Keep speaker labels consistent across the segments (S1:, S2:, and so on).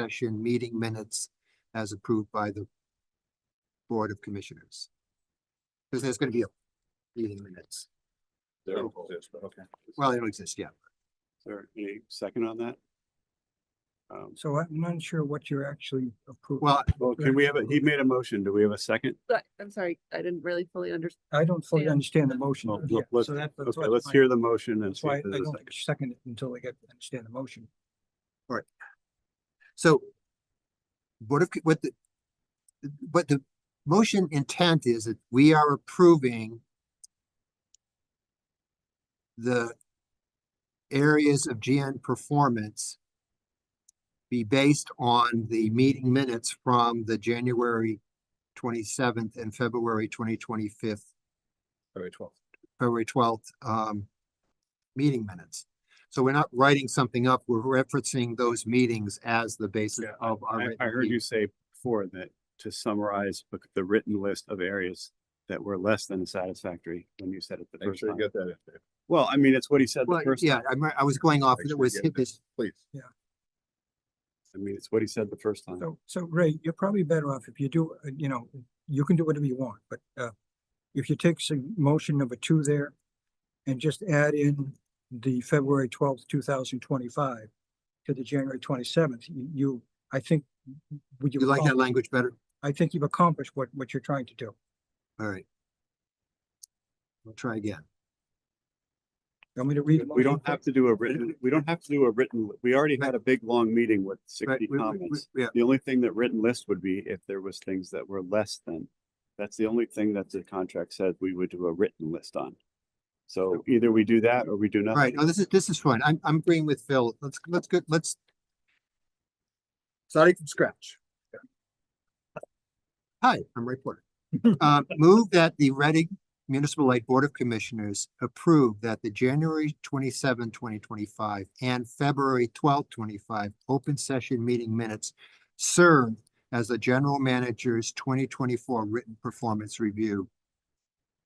S1: session meeting minutes as approved by the Board of Commissioners. Because there's gonna be a meeting minutes.
S2: There
S1: Oh.
S2: it is, but okay.
S1: Well, they don't exist yet.
S2: Is there any second on that? Um,
S3: So I'm not sure what you're actually approving.
S1: Well,
S2: well, can we have, a? he made a motion. Do we have a second?
S4: But I'm sorry, I didn't really fully understand.
S3: I don't fully
S4: yeah.
S3: understand the motion.
S2: Well,
S3: Yeah,
S2: let's-
S3: so that- that's
S2: Okay,
S3: what
S2: let's
S3: my-
S2: hear the motion and
S3: That's
S2: see
S3: why I
S2: if there's a
S3: don't
S2: second.
S3: think- second it until I get, understand the motion.
S1: so Board of, Co- what the, what the motion intent is that we are approving the areas of GN performance be based on the meeting minutes from the January twenty-seventh and February twenty twenty-fifth
S2: February twelfth.
S1: February twelfth, um, meeting minutes. So we're not writing something up, we're referencing those meetings as the basis
S2: Yeah,
S1: of our.
S2: I, I
S1: written
S2: heard you
S1: meeting.
S2: say before that to summarize the- the written list of areas that were less than satisfactory when you said it the
S5: Make
S2: first
S5: sure
S2: time.
S5: you get that in there,
S2: Well, I mean, it's what he said
S1: Well,
S2: the first,
S1: yeah, I'm, I was going off,
S5: Make
S1: it
S5: sure you
S1: was
S5: get
S1: hit this,
S5: please.
S2: I mean, it's what he said the first time.
S3: So, so Ray, you're probably better off if you do, uh, you know, you can do whatever you want, but, uh, if you take some motion number two there and just add in the February twelfth, two thousand twenty-five to the January twenty-seventh, you, I think, would
S1: you
S3: you,
S1: like that
S3: accom-
S1: language better?
S3: I think you've accomplished what, what you're trying to do.
S1: All right. We'll try again.
S3: I'm going to read.
S2: We don't
S3: motion?
S2: have to do a written, we don't have to do a written, we already had a big, long meeting with
S1: Right,
S2: sixty
S1: we- we- we-
S2: comments.
S1: Yeah,
S2: The only thing that written list would be if there was things that were less than. That's the only thing that the contract said we would do a written list on. So either we do that or we do
S1: all
S2: nothing.
S1: right, oh, this is, this is fun, I'm, I'm agreeing with Phil, let's, let's go, let's starting from scratch. Hi, I'm Ray Porter. Uh, move that the Reading Municipal Light Board of Commissioners approve that the January 27, 2025, and February 12, twenty-five open session meeting minutes serve as the general manager's twenty twenty-four written performance review.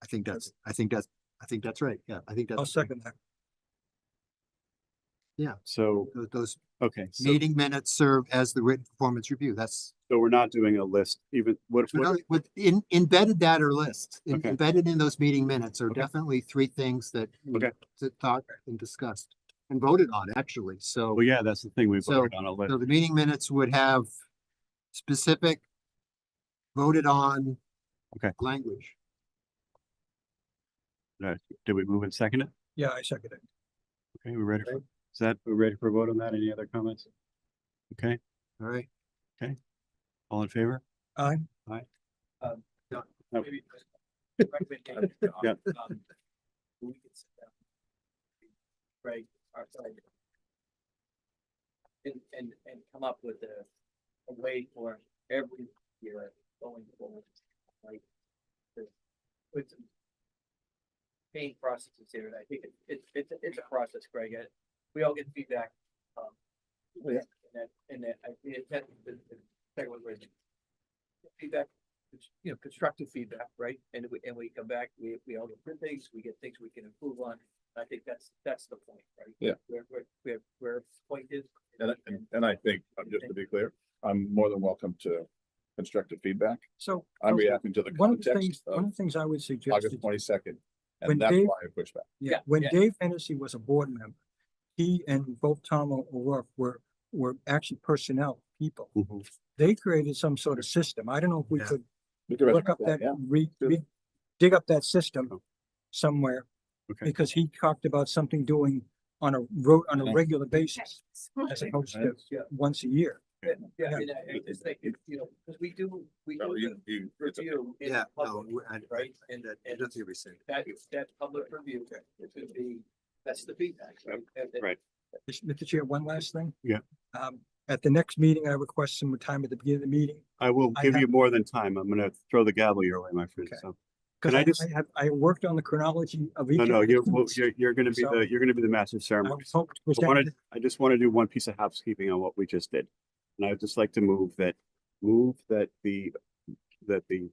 S1: I think that's, I think that's, I think that's right, yeah, I think
S3: I'll
S1: that's,
S3: second that.
S2: So,
S1: tho- those
S2: okay, so,
S1: meeting minutes serve as the written performance review, that's
S2: so we're not doing a list, even what,
S1: So
S2: what-
S1: no, With in embedded that or list, in-
S2: Okay.
S1: embedded in those meeting minutes are
S2: Okay.
S1: definitely three things that. we
S2: Okay.
S1: t- Thought and discussed and voted on actually, so,
S2: well, yeah, that's the thing, we
S1: So-
S2: voted on a list.
S1: so the meeting minutes would have specific. Voted on.
S2: Okay.
S1: Language,
S2: Did we move and second it?
S3: Yeah, I second it.
S2: Okay, we're ready for, is that, we're ready for a vote on that? Any other comments? Okay,
S1: all right,
S2: all in favor?
S3: Aye.
S2: No.
S6: maybe just recommendation on,
S2: Yeah.
S6: um, we can sit down. Right, our side. And, and, and come up with a, a way for every year going forward, like. to Put some. Pain processes here, and I think it, it's, it's, a- it's a process, Greg, I- we all get feedback, um.
S5: Oh,
S6: And that, and that, I, the intent, the, the, second one was Feedback cons- you know, constructive feedback, right? And we, and we come back, we, we all get things, we get things we can improve on. I think that's, that's the point, right?
S5: Yeah.
S6: Where, where, where, where point is.
S5: And, I- and, and I think, um, just to be clear, I'm more than welcome to constructive feedback.
S3: So.
S5: I'm
S3: Counselor,
S5: reacting to the
S3: One of the things,
S5: context
S3: one
S5: of
S3: of the things I would suggest.
S5: August
S3: is-
S5: twenty-second.
S3: When
S5: And that's
S3: Dave-
S5: why I push back.
S3: Yeah,
S6: Yeah,
S3: when
S6: yeah.
S3: Dave Hennessy was a board member, he and both Tom O'Rourke were, were actually personnel people.
S5: Mm-hmm.
S2: Mhm.
S3: They created some sort of system. I don't know if we
S1: Yeah.
S3: could
S5: We can
S3: look up
S5: recommend
S3: that,
S5: yeah.
S3: re,
S5: Sure. Oh.
S3: re- dig up that system somewhere.
S2: Okay.
S3: Because he talked about something doing on a road, on a
S5: Yeah.
S3: regular basis, as opposed to
S6: Yeah,
S3: once a year.
S6: yeah, yeah,
S3: Yeah.
S6: and I, I just think, it's, you know, because we do, we
S5: Well,
S6: do
S5: you- you-
S6: the
S5: it's a-
S6: review. in
S1: yeah, no,
S6: public,
S1: we- I,
S6: Right, and,
S1: that, I
S6: and
S1: don't think we said.
S6: that, that public review should be, that's the feedback, right? And- and-
S2: Right.
S3: Mis- Mr. Chair, one last thing.
S2: Yeah.
S3: Um, at the next meeting, I request some time at the beginning of the meeting.
S2: I will
S3: I
S2: give
S3: have-
S2: you more than time. I'm gonna throw the gavel your way, my friend,
S3: Okay.
S2: so.
S3: Cause
S2: Can I
S3: I,
S2: just-
S3: I have, I worked on the chronology of each.
S2: No,
S3: of
S2: no,
S3: the
S2: you're, well,
S3: minutes.
S2: you're, you're gonna be
S3: So-
S2: the, you're gonna be the master
S3: I
S2: ceremony.
S3: was hoping to
S2: I
S3: present
S2: wanted, I just want to do one piece of housekeeping on what we just did. And I'd just like to move that, move that the, that the,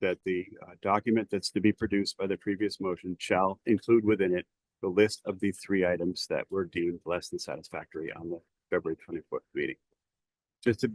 S2: that the uh, document that's to be produced by the previous motion shall include within it the list of the three items that were deemed less than satisfactory on the February twenty-fourth meeting. just to